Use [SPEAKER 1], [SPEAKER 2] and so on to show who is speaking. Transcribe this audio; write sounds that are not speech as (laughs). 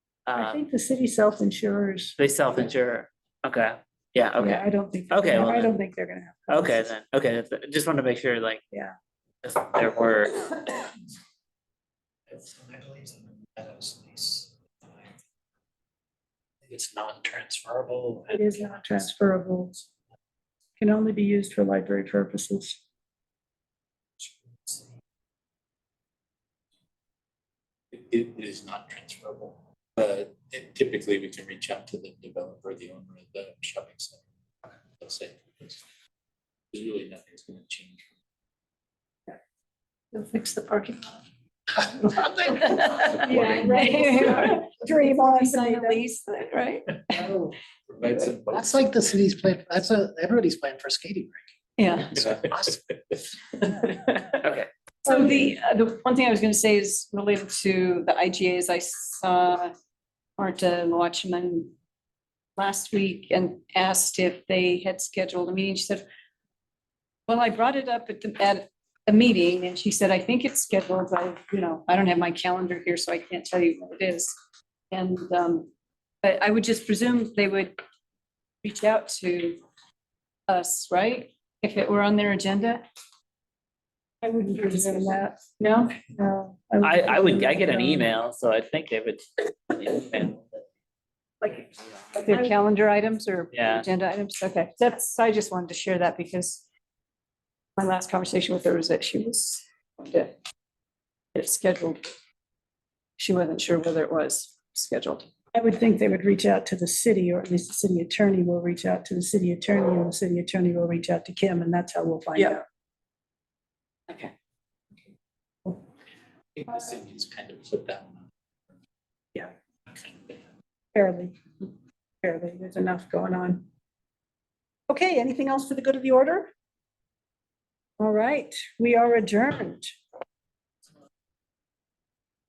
[SPEAKER 1] Uh,
[SPEAKER 2] I think the city self-insures.
[SPEAKER 1] They self-insure. Okay. Yeah,
[SPEAKER 2] Yeah,
[SPEAKER 1] okay.
[SPEAKER 2] I don't think.
[SPEAKER 1] Okay, well
[SPEAKER 2] I
[SPEAKER 1] then.
[SPEAKER 2] don't think they're gonna have.
[SPEAKER 1] Okay, then. Okay, that's- just want to make sure like.
[SPEAKER 2] Yeah.
[SPEAKER 1] If there were,
[SPEAKER 3] It's- I believe it's in the Meadows lease. I think It's non-transferable.
[SPEAKER 2] It is not transferable. Can only be used for library purposes.
[SPEAKER 4] It, it is not transferable, but it- typically we can reach out to the developer, the owner of the shopping center. They'll say, "There's really nothing's gonna change.
[SPEAKER 5] They'll fix the parking lot.
[SPEAKER 2] (laughs)
[SPEAKER 5] (laughs)
[SPEAKER 2] Yeah, right. Dream on.
[SPEAKER 5] Sign a lease, right?
[SPEAKER 4] Provide some-
[SPEAKER 3] Oh. That's like the city's plan, that's a, everybody's plan for skating
[SPEAKER 5] Yeah.
[SPEAKER 1] okay,
[SPEAKER 5] So the, uh, the one thing I was gonna say is related to the IGAs. I saw Marta and Watchman last week and asked if they had scheduled a meeting. She said, well, I brought it up at the, at a meeting and she said, I think it's scheduled, but, you know, I don't have my calendar here, so I can't tell you what it is. And, um, but I would just presume they would reach out to us, right? If it were on their agenda?
[SPEAKER 2] I wouldn't presume that.
[SPEAKER 5] No?
[SPEAKER 2] No.
[SPEAKER 1] I, I would, I get an
[SPEAKER 2] um,
[SPEAKER 1] email, so I think they would.
[SPEAKER 5] Like, like their calendar items or
[SPEAKER 1] Yeah.
[SPEAKER 5] agenda items? Okay, that's, I just wanted to share that because my last conversation with her was that she was, going to get it scheduled. She wasn't sure whether it was scheduled.
[SPEAKER 2] I would think they would reach out to the city, or at least the city attorney will reach out to the city attorney, and the city attorney will reach out to Kim, and that's how we'll find
[SPEAKER 5] Yeah.
[SPEAKER 2] out.
[SPEAKER 5] Okay.
[SPEAKER 4] I think the city's kind of put that one.
[SPEAKER 2] Yeah.
[SPEAKER 4] Okay.
[SPEAKER 2] Fairly, fairly, there's enough going on. Okay, anything else for the good of the order? All right, we are adjourned.